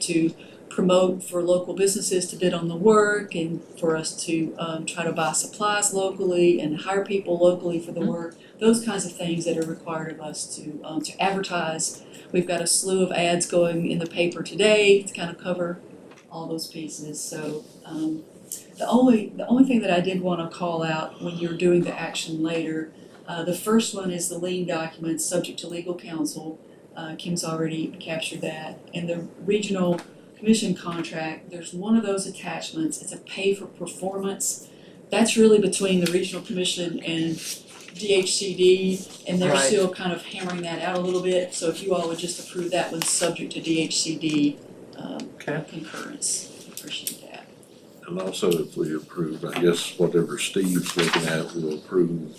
to promote for local businesses to bid on the work and for us to um try to buy supplies locally and hire people locally for the work. Those kinds of things that are required of us to um to advertise. We've got a slew of ads going in the paper today to kind of cover all those pieces, so um the only, the only thing that I did wanna call out when you're doing the action later, uh the first one is the lien documents subject to legal counsel. Uh Kim's already captured that, and the regional commission contract, there's one of those attachments, it's a pay for performance. That's really between the regional commission and DHCD, and they're Right. still kind of hammering that out a little bit, so if you all would just approve that one, subject to DHCD um Okay. concurrence, appreciate that. And also if we approve, I guess whatever Steve's looking at, we'll approve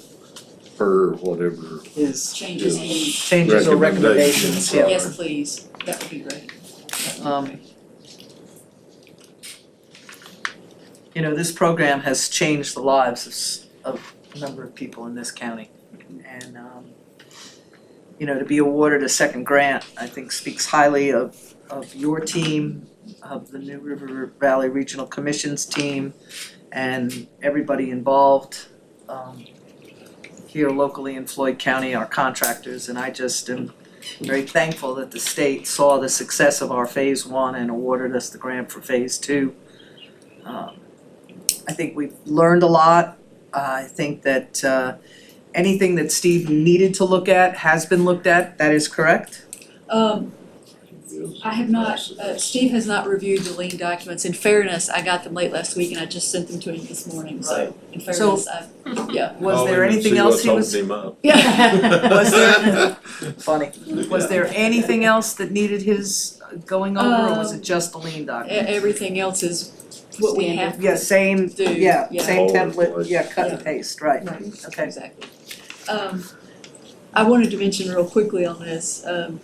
per whatever. Is Changes Yeah. in, changes or recommendations, Recommendations, yeah. yes, please, that would be great. Um, You know, this program has changed the lives of s- of a number of people in this county. And um, you know, to be awarded a second grant, I think speaks highly of of your team, of the New River Valley Regional Commission's team and everybody involved um here locally in Floyd County, our contractors, and I just am very thankful that the state saw the success of our phase one and awarded us the grant for phase two. Um, I think we've learned a lot. I think that uh, anything that Steve needed to look at has been looked at, that is correct? Um, is I have not, process. uh, Steve has not reviewed the lien documents. In fairness, I got them late last week and I just sent them to him this morning, so in fairness, I, Was Call there him and anything see else he was, what's holding him up. yeah. was there, funny, was there anything else that needed his uh, going over or was it just the lean E- document? Everything else is what we have. Yeah, same, Do, yeah, yeah. same All over the template, place. yeah, cut and Yeah. paste, right, okay. Right, exactly. Um, I wanted to mention real quickly on this, um,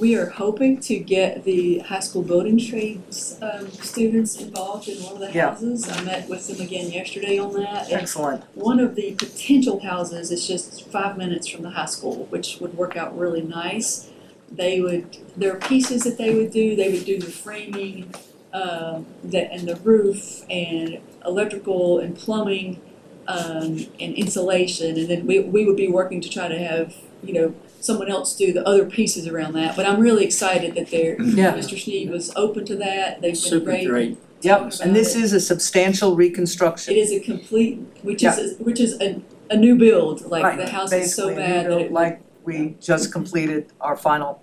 we are hoping to get the high school building trades, um, students involved in one of the Yeah. houses. I met with them again yesterday on that and Excellent, One of the potential houses is just five minutes from the high school, which would work out really nice. They would, there are pieces that they would do, they would do the framing, um, the, and the roof and electrical and plumbing, um, and insulation, and then we, we would be working to try to have, you know, someone else do the other pieces around that, but I'm really excited that they're, yeah, Mr. Sneed was open to that, they've been Super great. yep, and this is a substantial It reconstruction, is a complete, which is, which is a, a new build, like the Right, house is so basically, bad that rebuilt it, like we just completed our final,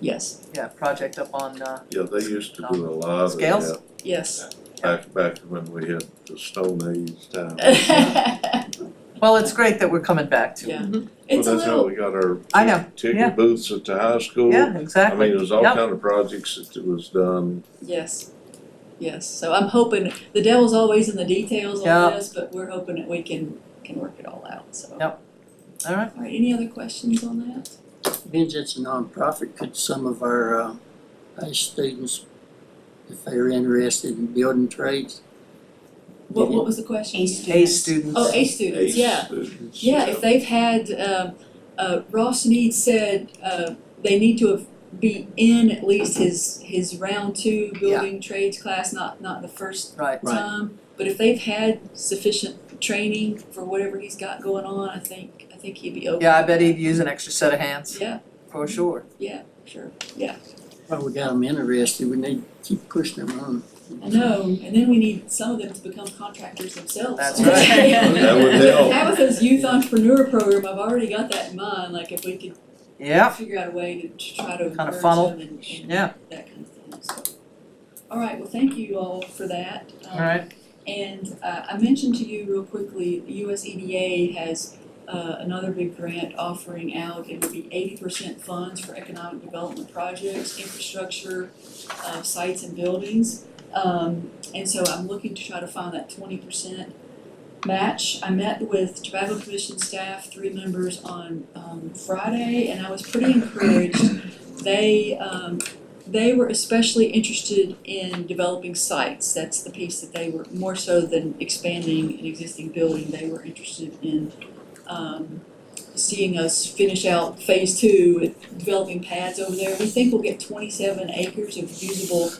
yes, yeah, project up on, uh, Yeah, they used to do a lot of Scales? that yes. back, back when we had the Stone Age time. well, it's great that we're coming back to it. Yeah, Well, it's a that's how little, we got our I know, yeah. ticket booths at the high school. Yeah, I mean, exactly, there was all Yep. kind of projects that was done. yes, yes, so I'm hoping, the devil's always in the details Yeah. on this, but we're hoping that we can, can work it all out, so. Yep. all right, All right, any other questions on that? Means it's a nonprofit, could some of our, uh, high students, if they're interested in building trades? What, what was the question? A students. Oh, A students, ACE yeah. students, Yeah, if they've had, um, uh, Ross Need said, uh, they need to have be in at least his, his round two building trades class, not, not the first Right, Right. time. But if they've had sufficient training for whatever he's got going on, I think, I think he'd be open. yeah, I bet he'd use an extra set of hands, Yeah, for sure, sure. Well, we got them interested, we need to keep pushing them on. I know, and then we need some of them to become contractors themselves. That's right. That would help. Tabitha's youth entrepreneur program, I've already got that in mind, like if we could yeah, figure out a way to- to try to encourage Kinda funnel. them and- and Yeah. that kind of thing, so. All right, well, thank you all for that. Um, all right, And uh I mentioned to you real quickly, the US EDA has uh another big grant offering out, it would be eighty percent funds for economic development projects, infrastructure, uh sites and buildings. Um and so I'm looking to try to find that twenty percent match. I met with Tobacco Commission staff, three members on um Friday, and I was pretty encouraged. They um they were especially interested in developing sites. That's the piece that they were, more so than expanding an existing building, they were interested in um seeing us finish out phase two with developing pads over there. We think we'll get twenty-seven acres of usable